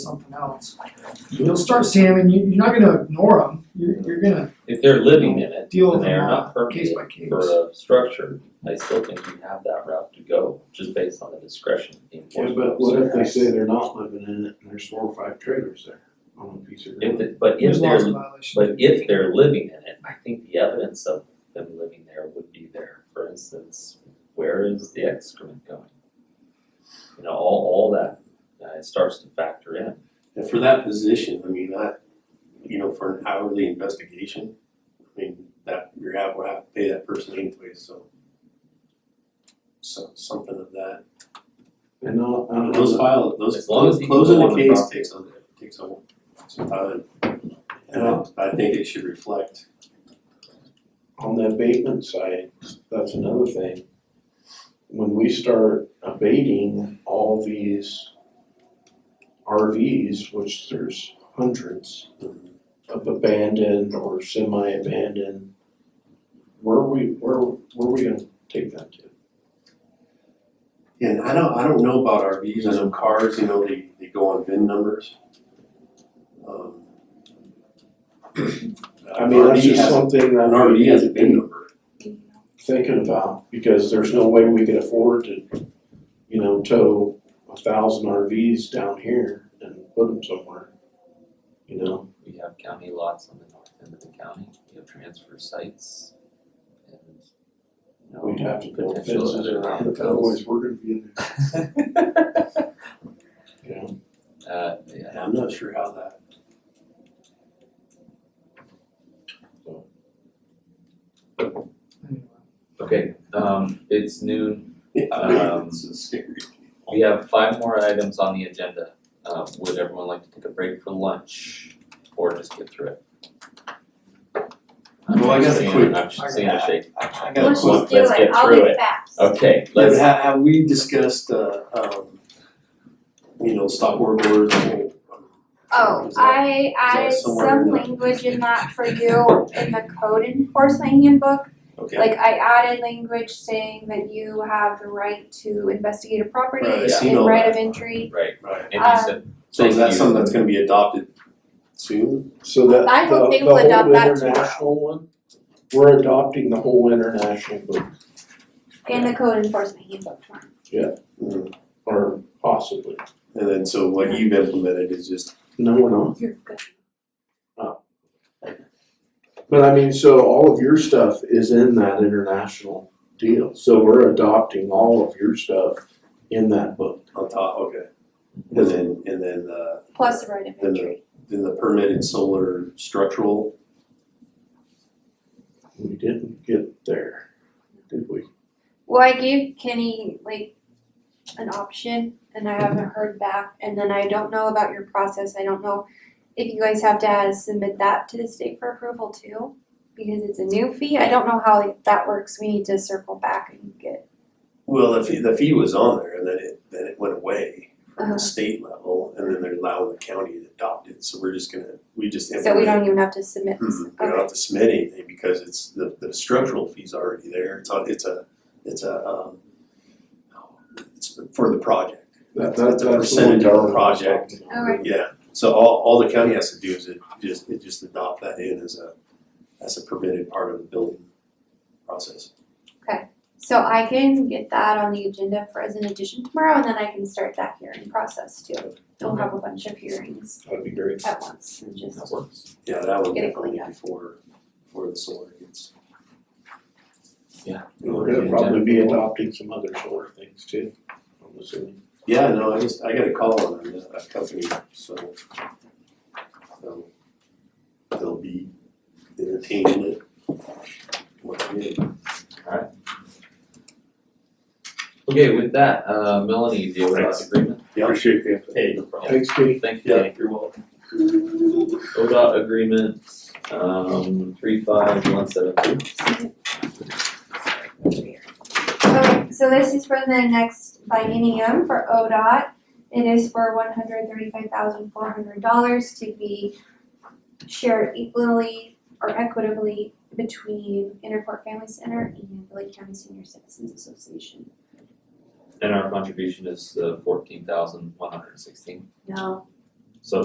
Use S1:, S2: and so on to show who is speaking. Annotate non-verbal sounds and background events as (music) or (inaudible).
S1: something else. You'll start seeing them, and you, you're not gonna ignore them, you're, you're gonna
S2: If they're living in it,
S1: deal
S2: and
S1: with
S2: they are
S1: them
S2: not
S1: on a case
S2: permitted
S1: by case.
S2: for a structure, I still think you have that route to go, just based on the discretion of the
S3: Yeah,
S2: enforcement
S3: but what if they
S2: officer.
S3: say they're not living in it and there's four or five trailers there on a piece of
S2: If,
S3: ground?
S2: the- but if
S1: There's lots of
S2: they're,
S1: violations.
S2: but if they're living in it, I think the evidence of them living there would be there, for instance, where is the excrement going? You know, all, all that, uh, it starts to factor in.
S4: And for that position, I mean, I, you know, for an hourly investigation, I mean, that, you're have, we'll have to pay that person anyway, so. So, something of that,
S3: And I'll, I don't
S4: those
S3: know,
S4: file, those,
S2: As long as you can
S4: closing
S2: go
S4: the
S2: on the
S4: case
S2: property.
S4: takes a, takes a, some time. And I, I think it should reflect,
S3: on the abatement side, that's another thing. When we start abating all these RVs, which there's hundreds of abandoned or semi-abandoned, where are we, where, where are we gonna take that to?
S4: and I don't, I don't know about RVs, I know cars, you know, they, they go on VIN numbers. Um,
S3: I mean, that's
S4: RV
S3: just
S4: has-
S3: something that.
S4: An RV has a VIN number.
S3: thinking about, because there's no way we could afford to, you know, tow a thousand RVs down here and put them somewhere. You know,
S2: We have county lots on the north end of the county, we have transfer sites and, you know,
S3: we'd have to build
S2: potential
S3: fences
S2: other
S3: around it,
S2: landfills.
S3: otherwise we're gonna be in there,
S2: (laughs)
S3: you know.
S2: Uh, yeah,
S4: And I'm not sure how that. (laughs)
S1: Anyway.
S2: okay, um, it's noon, Um,
S4: This is serious.
S2: we have five more items on the agenda, uh, would everyone like to take a break for lunch? Or just get through it?
S4: Well, I got a
S2: Seeing-
S4: quick-
S2: I'm seeing a shake,
S4: I I got a
S5: Let's
S4: question.
S5: just do
S2: Let's
S5: it,
S2: get
S5: I'll
S2: through
S5: be
S2: it.
S5: fast.
S2: okay,
S4: But
S2: let's,
S4: have, have we discussed, uh, um, you know, stop work orders and whole? um,
S5: Oh,
S4: Is that-
S5: I added
S4: somewhere
S5: some
S4: in the-
S5: language in that for you in the code enforcement handbook.
S4: Okay,
S5: Like I added language saying that you have the right to investigate a property
S4: Right, I seen
S5: and
S4: all
S5: right
S4: that.
S5: of entry.
S2: right,
S4: right.
S2: and you
S5: Uh,
S2: said,
S4: So is that
S2: Thank you.
S4: something that's gonna be adopted soon?
S3: So that,
S5: I
S3: the,
S5: hope they
S3: the
S5: will
S3: whole
S5: adopt that tomorrow.
S3: international one, we're adopting the whole international book,
S5: uh, In the code enforcement handbook form.
S4: Mm.
S3: or possibly.
S4: And then, so what you've implemented is just,
S3: No, we're not.
S5: You're good.
S3: But I mean, so all of your stuff is in that international deal, so we're adopting all of your stuff in that book.
S4: on top, okay. And then, and then, uh,
S5: Plus the right of
S4: Then the-
S5: entry.
S4: then the permitted solar structural,
S3: We didn't get there, did we?
S5: Well, I gave Kenny like an option and I haven't heard back. And then I don't know about your process. I don't know if you guys have to submit that to the state for approval too, because it's a new fee. I don't know how that works. We need to circle back and get.
S4: well, the fee, the fee was on there and then it, then it went away.
S5: Uh,
S4: the state level, and then they're allowing the county to adopt it, so we're just gonna, we just
S5: so we
S4: implement.
S5: don't even have to submit this.
S4: Hmm, we don't have to submit anything because it's, the, the structural fee's already there, it's on, it's a, it's a, um, it's for the project,
S3: That, that,
S4: That's
S3: that's
S4: a
S3: what
S4: percentage of the
S3: Darwin was
S4: project.
S3: talking about.
S5: Alright.
S4: yeah, so all, all the county has to do is it just, it just adopt that in as a, as a permitted part of the building process.
S5: So I can get that on the agenda for as an addition tomorrow and then I can start that hearing process too. We'll have a bunch of hearings
S3: That'd be great.
S5: at once and just
S2: that works,
S4: Yeah, that one
S5: Get it
S4: definitely
S5: cleaned up.
S4: before, before the solar gets.
S2: Yeah.
S3: We're gonna probably be adopting some other sort of things too, I'm assuming.
S4: Yeah, no, I just, I got a call on a, a company, so. So. They'll be entertaining it. What I did.
S2: okay, with that, uh, Melanie, do you have a
S4: Thanks.
S2: agreement?
S4: Yeah,
S3: Appreciate the
S4: hey, no problem.
S3: Thanks, Kenny.
S2: Thank you,
S4: Yeah,
S2: Danny.
S4: you're welcome.
S2: ODOT agreement, um, three five one seven two.
S5: Okay, so this is for the next biennium for ODOT. It is for one hundred thirty-five thousand four hundred dollars to be shared equally or equitably between Interport Family Center and the Lake County Senior Citizens Association.
S2: And our contribution is uh fourteen thousand one hundred sixteen.
S5: No,